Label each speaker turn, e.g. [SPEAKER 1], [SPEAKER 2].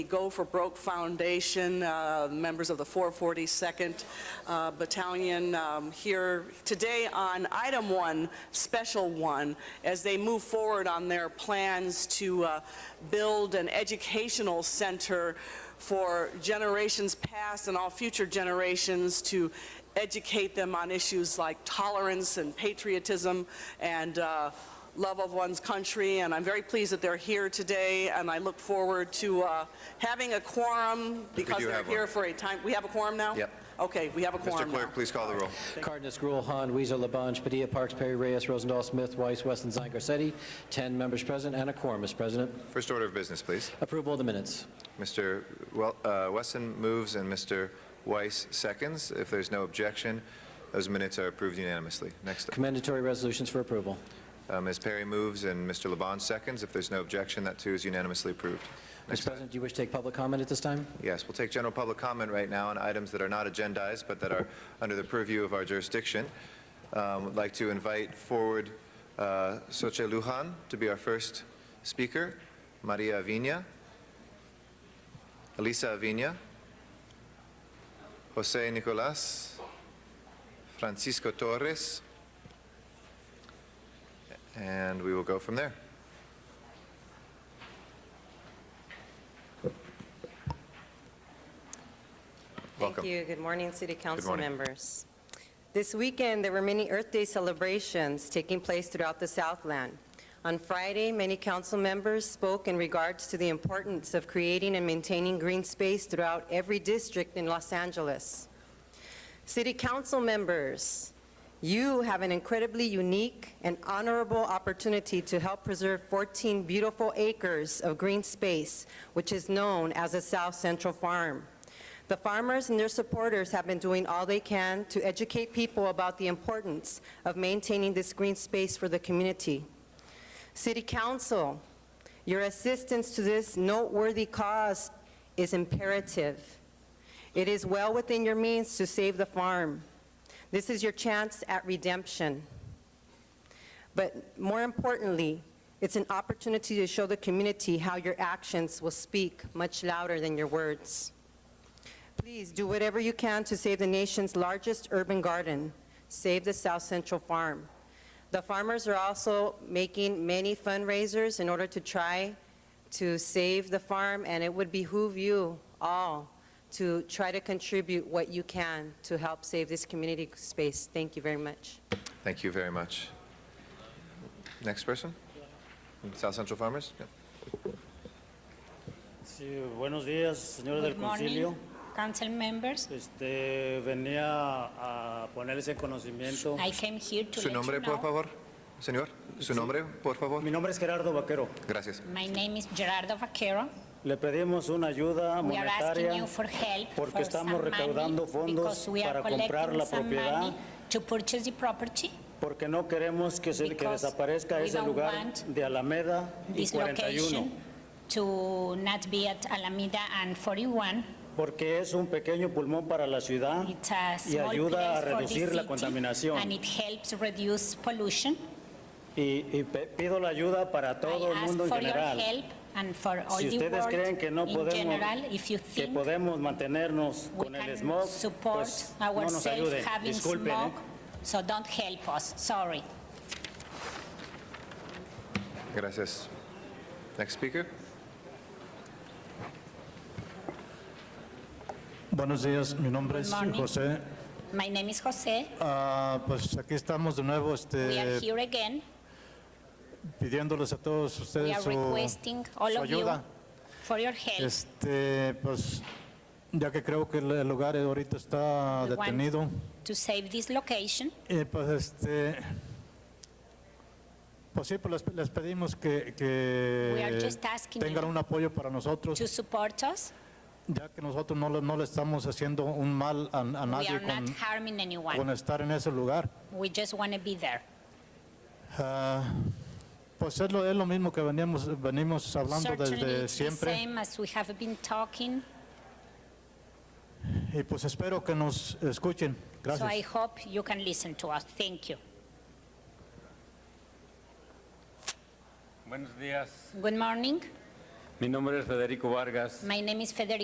[SPEAKER 1] The Go for Broke Foundation, uh, members of the 442nd uh, Battalion um, here today on item one, special one, as they move forward on their plans to uh, build an educational center for generations past and all future generations to educate them on issues like tolerance and patriotism and uh, love of one's country, and I'm very pleased that they're here today, and I look forward to uh, having a quorum because
[SPEAKER 2] do
[SPEAKER 1] they're
[SPEAKER 2] have one.
[SPEAKER 1] here for a time. We have a quorum now?
[SPEAKER 2] Yep.
[SPEAKER 1] Okay, we have a
[SPEAKER 2] Mr.
[SPEAKER 1] quorum now.
[SPEAKER 2] Clerk, please call the roll.
[SPEAKER 3] Cardenas, Gruel, Han, Weezer, Labange, Padilla, Parks, Perry, Reyes, Rosendahl, Smith, Weiss, Weston, Zine, Garcetti, 10 members present and a quorum, Mr. President.
[SPEAKER 2] First order of business, please.
[SPEAKER 3] Approval of the minutes.
[SPEAKER 2] Mr. Wel- uh, Wesson moves and Mr. Weiss seconds. If there's no objection, those minutes are approved unanimously. Next, up,
[SPEAKER 3] Commendatory resolutions for approval.
[SPEAKER 2] uh, Ms. Perry moves and Mr. Labange seconds. If there's no objection, that too is unanimously approved.
[SPEAKER 3] Mr.
[SPEAKER 2] Next, up.
[SPEAKER 3] President, do you wish to take public comment at this time?
[SPEAKER 2] yes, we'll take general public comment right now on items that are not agendized but that are under the purview of our jurisdiction. Um, I'd like to invite forward uh, Soche Lujan to be our first speaker, Maria Avina, Elisa Avina, Jose Nicolas, Francisco Torres, and we will go from there. Welcome.
[SPEAKER 4] Thank you. Good morning, City Council
[SPEAKER 2] morning.
[SPEAKER 4] members. This weekend, there were many Earth Day celebrations taking place throughout the Southland. On Friday, many council members spoke in regards to the importance of creating and maintaining green space throughout every district in Los Angeles. City Council members, you have an incredibly unique and honorable opportunity to help preserve 14 beautiful acres of green space, which is known as the South Central Farm. The farmers and their supporters have been doing all they can to educate people about the importance of maintaining this green space for the community. City Council, your assistance to this noteworthy cause is imperative. It is well within your means to save the farm. This is your chance at redemption. But more importantly, it's an opportunity to show the community how your actions will speak much louder than your words. Please do whatever you can to save the nation's largest urban garden. Save the South Central Farm. The farmers are also making many fundraisers in order to try to save the farm, and it would behoove you all to try to contribute what you can to help save this community space. Thank you very much.
[SPEAKER 2] Thank you very much. Next person? South Central Farmers? Yeah.
[SPEAKER 5] Sí, buenos días, señores del
[SPEAKER 6] Good morning,
[SPEAKER 5] concilio.
[SPEAKER 6] council members.
[SPEAKER 5] Este, venía a ponerles en conocimiento.
[SPEAKER 6] I came here to
[SPEAKER 2] Su
[SPEAKER 6] let you
[SPEAKER 2] nombre, por
[SPEAKER 6] know.
[SPEAKER 2] favor, señor. Su nombre, por favor.
[SPEAKER 5] Mi nombre es Gerardo Vaquero.
[SPEAKER 2] Gracias.
[SPEAKER 6] My name is Gerardo Vaquero.
[SPEAKER 5] Le pedimos una ayuda
[SPEAKER 6] We are asking
[SPEAKER 5] monetaria
[SPEAKER 6] you for help
[SPEAKER 5] porque
[SPEAKER 6] for some
[SPEAKER 5] estamos recaudando
[SPEAKER 6] money
[SPEAKER 5] fondos
[SPEAKER 6] because we are
[SPEAKER 5] para comprar la
[SPEAKER 6] collecting some money
[SPEAKER 5] propiedad,
[SPEAKER 6] to purchase the property.
[SPEAKER 5] porque no queremos que se que
[SPEAKER 6] because
[SPEAKER 5] desaparezca
[SPEAKER 6] we
[SPEAKER 5] ese
[SPEAKER 6] don't
[SPEAKER 5] lugar
[SPEAKER 6] want
[SPEAKER 5] de Alameda y
[SPEAKER 6] This
[SPEAKER 5] 41,
[SPEAKER 6] location to not be at Alameda and 41.
[SPEAKER 5] porque es un pequeño pulmón para la ciudad
[SPEAKER 6] It's a
[SPEAKER 5] y
[SPEAKER 6] small
[SPEAKER 5] ayuda a
[SPEAKER 6] place for
[SPEAKER 5] reducir la
[SPEAKER 6] the city and
[SPEAKER 5] contaminación.
[SPEAKER 6] it helps reduce pollution.
[SPEAKER 5] Y, y pe- pido la ayuda para todo el mundo en
[SPEAKER 6] I ask for
[SPEAKER 5] general.
[SPEAKER 6] your help and for all
[SPEAKER 5] Si
[SPEAKER 6] the
[SPEAKER 5] ustedes
[SPEAKER 6] world
[SPEAKER 5] creen que no
[SPEAKER 6] in general. If you
[SPEAKER 5] podemos, que
[SPEAKER 6] think
[SPEAKER 5] podemos mantenernos
[SPEAKER 6] we
[SPEAKER 5] con el
[SPEAKER 6] can
[SPEAKER 5] smog,
[SPEAKER 6] support
[SPEAKER 5] pues no nos
[SPEAKER 6] ourselves
[SPEAKER 5] ayuden.
[SPEAKER 6] having
[SPEAKER 5] Disculpen,
[SPEAKER 6] smoke,
[SPEAKER 5] ¿eh?
[SPEAKER 6] so don't help us, sorry.
[SPEAKER 2] Gracias. Next speaker?
[SPEAKER 7] Buenos días, mi nombre
[SPEAKER 6] Good
[SPEAKER 7] es
[SPEAKER 6] morning.
[SPEAKER 7] José.
[SPEAKER 6] My name is José,
[SPEAKER 7] Ah, pues aquí estamos de nuevo
[SPEAKER 6] we are
[SPEAKER 7] este,
[SPEAKER 6] here again,
[SPEAKER 7] pidiéndoles a todos
[SPEAKER 6] we
[SPEAKER 7] ustedes
[SPEAKER 6] are
[SPEAKER 7] su,
[SPEAKER 6] requesting all
[SPEAKER 7] su
[SPEAKER 6] of you
[SPEAKER 7] ayuda.
[SPEAKER 6] for your help.
[SPEAKER 7] Este, pues ya que creo que el- el lugar ahorita está
[SPEAKER 6] We want
[SPEAKER 7] detenido,
[SPEAKER 6] To save this location,
[SPEAKER 7] eh, pues este, pues sí, pues les, les pedimos que, que
[SPEAKER 6] We are just asking
[SPEAKER 7] tengan
[SPEAKER 6] you
[SPEAKER 7] un apoyo para nosotros,
[SPEAKER 6] to support us,
[SPEAKER 7] ya que nosotros no, le- no le estamos haciendo un mal a, a
[SPEAKER 6] we are
[SPEAKER 7] nadie
[SPEAKER 6] not
[SPEAKER 7] con,
[SPEAKER 6] harming
[SPEAKER 7] con
[SPEAKER 6] anyone,
[SPEAKER 7] estar en ese lugar.
[SPEAKER 6] we just want to be there.
[SPEAKER 7] Ah, Pues es lo, es lo mismo que veníamos, venimos hablando
[SPEAKER 6] Certainly,
[SPEAKER 7] desde
[SPEAKER 6] it's the
[SPEAKER 7] siempre
[SPEAKER 6] same as we have been talking,
[SPEAKER 7] y pues espero que nos escuchen.
[SPEAKER 6] so I
[SPEAKER 7] Gracias.
[SPEAKER 6] hope you can listen to us, thank you.
[SPEAKER 8] Buenos días,
[SPEAKER 6] Good morning,
[SPEAKER 9] Mi nombre es Federico Vargas.
[SPEAKER 10] My name is Federico